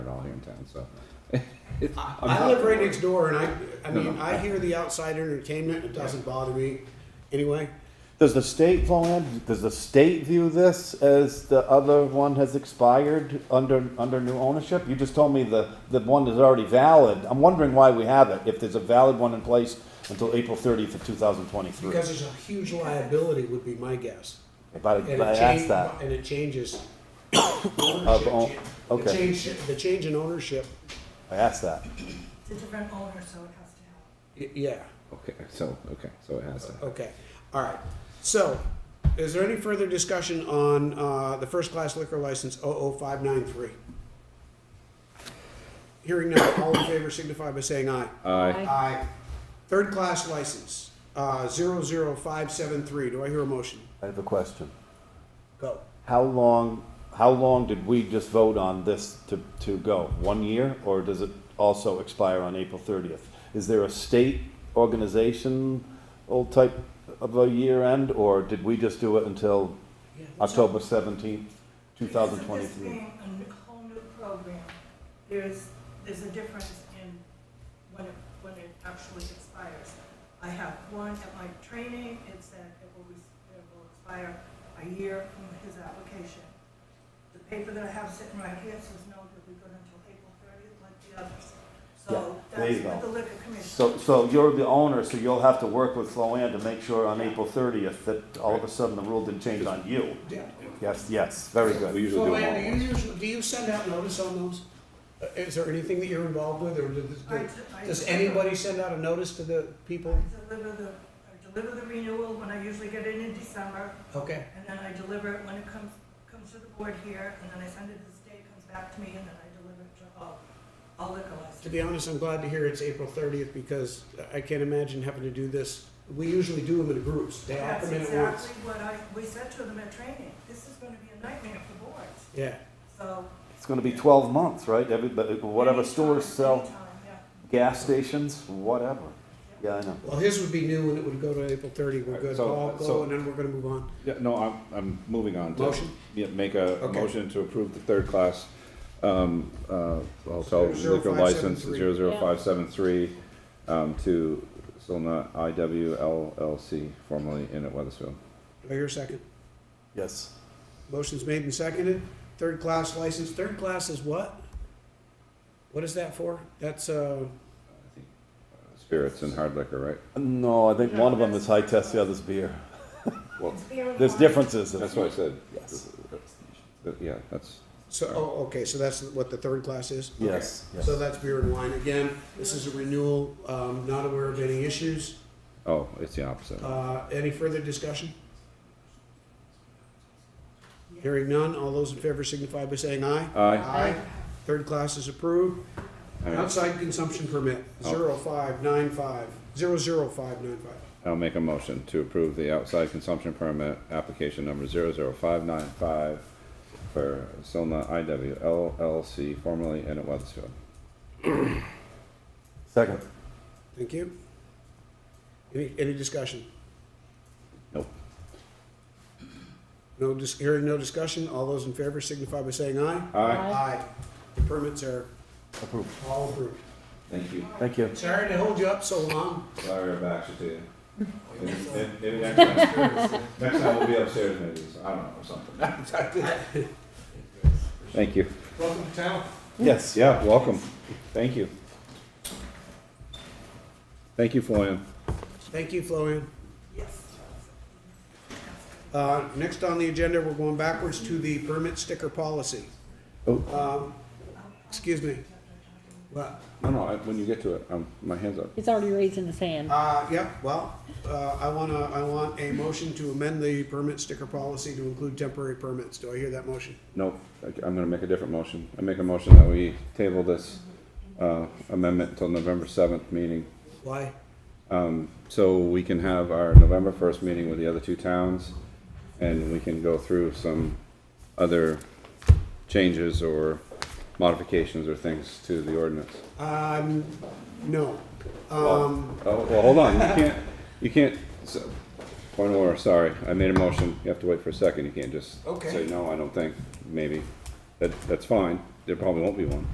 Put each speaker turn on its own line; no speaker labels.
downtown, so.
I,
I'm
I
not-
live right next door, and I, I
No,
mean,
no.
I hear the outside entertainment. It doesn't bother me anyway.
Does the state fall in? Does the state view this as the other one has expired under, under new ownership? You just told me the, the one is already valid. I'm wondering why we have it, if there's a valid one in place until April thirtieth of two thousand twenty-three.
Because there's a huge liability, would be my guess.
If I,
And
if
it
I
change-
asked that,
And it changes.
Of own-
ownership. The
okay.
change, the change in ownership,
I asked that.
It's a different owner, so it has to help.
y- yeah,
Okay, so, okay, so it has to.
okay, all right. So, is there any further discussion on, uh, the first-class liquor license 00593? Hearing none, all in favor signify by saying aye.
Aye.
Aye. Third-class license, uh, 00573. do I hear a motion?
I have a question.
Go.
How long, how long did we just vote on this to, to go? One year, or does it also expire on April thirtieth? Is there a state organization, old type of a year end, or did we just do it until October seventeenth, two thousand
Because
twenty-three?
of this being a n- whole new program, there's, there's a difference in when it, when it actually expires. I have one at my training, it said it will, res- it will expire a year from his application. The paper that I have sitting right here says no, that we go until April thirtieth like the others. So
Yeah, there you
that's what
go.
the liquor commission.
So, so you're the owner, so you'll have to work with Floanne to make sure on April thirtieth that all of a sudden the rule didn't change on you. Yes, yes, very good.
We usually
So,
do
Ann,
them
do you usually, do you send out notice on those? Uh, Is there anything that you're involved with, or
I-
does,
I-
does anybody send out a notice to the people?
Deliver the, I deliver the renewal when I usually get it in December.
Okay,
And then I deliver it when it comes, comes to the board here, and then I send it to the state, it comes back to me, and then I deliver it to all, all liquor
to
licenses.
be honest, I'm glad to hear it's April thirtieth, because I can't imagine having to do this. We usually do them in groups, they all
That's
come in at once.
exactly what I, we said to them at training, this is gonna be a nightmare for boards,
Yeah,
so.
It's gonna be twelve months, right? Everybody, whatever
anytime,
stores sell.
anytime, yeah.
gas stations, whatever. Yeah, I know.
well, his would be new, and it would go to April thirty, we're good,
So-
Paul, go,
so-
and then we're gonna move on.
Yeah, no, I'm, I'm moving on to.
Motion?
Yeah, make a
Okay.
motion to approve the third class, um, uh, hotel
Zero
liquor
five
license,
seven three.
zero zero five seven three, um, to Solna IW LLC, formerly in at Weathersfield.
Do I hear a second?
Yes.
Motion's made and seconded. Third class license, third class is what? What is that for? That's, uh,
I think, uh, Spirits and hard liquor, right?
No, I think one of them is high test, the other's beer.
It's beer and
There's
wine.
differences.
That's what I said.
Yes.
But, Yeah, that's,
so, oh, okay, so that's what the third class is?
Yes. yes.
So that's beer and wine. Again, this is a renewal, um, not aware of any issues.
oh, it's the opposite.
Uh, any further discussion? Hearing none, all those in favor signify by saying aye.
Aye.
Third class is approved.
All right,
Outside consumption permit,
Oh.
zero five nine five, zero zero five nine five.
I'll make a motion to approve the outside consumption permit, application number zero zero five nine five for Solna IW LLC, formerly in at Weathersfield.
Second.
Thank you. Any, any discussion?
Nope.
No, dis- hearing no discussion, all those in favor signify by saying aye.
Aye.
Aye. The permits are
Approved.
all approved.
Thank you.
Thank you.
Sorry to hold you up so long.
Sorry about actually to you. Maybe- maybe- maybe next time- Next time we'll be upstairs maybe, so- I don't know, or something. Thank you.
Welcome to town.
Yes.
Yeah, welcome. Thank you. Thank you, Floyan.
Thank you, Floan.
Yes.
Uh, next on the agenda, we're going backwards to the permit sticker policy.
Oh.
Um, excuse me. Well,
No, no, I- when you get to it, um, my hand's up.
He's already raising his hand.
uh, yeah, well, uh, I wanna, I want a motion to amend the permit sticker policy to include temporary permits. Do I hear that motion?
Nope, I- I'm gonna make a different motion. I make a motion that we table this uh, amendment until November seventh meeting.
Why?
Um, So we can have our November first meeting with the other two towns, and we can go through some other changes or modifications or things to the ordinance.
Um, no. Um,
Oh, well, hold on, you can't, you can't, so- point of order, sorry, I made a motion, you have to wait for a second, you can't just
Okay.
say no, I don't think, maybe. That, that's fine, there probably won't be one.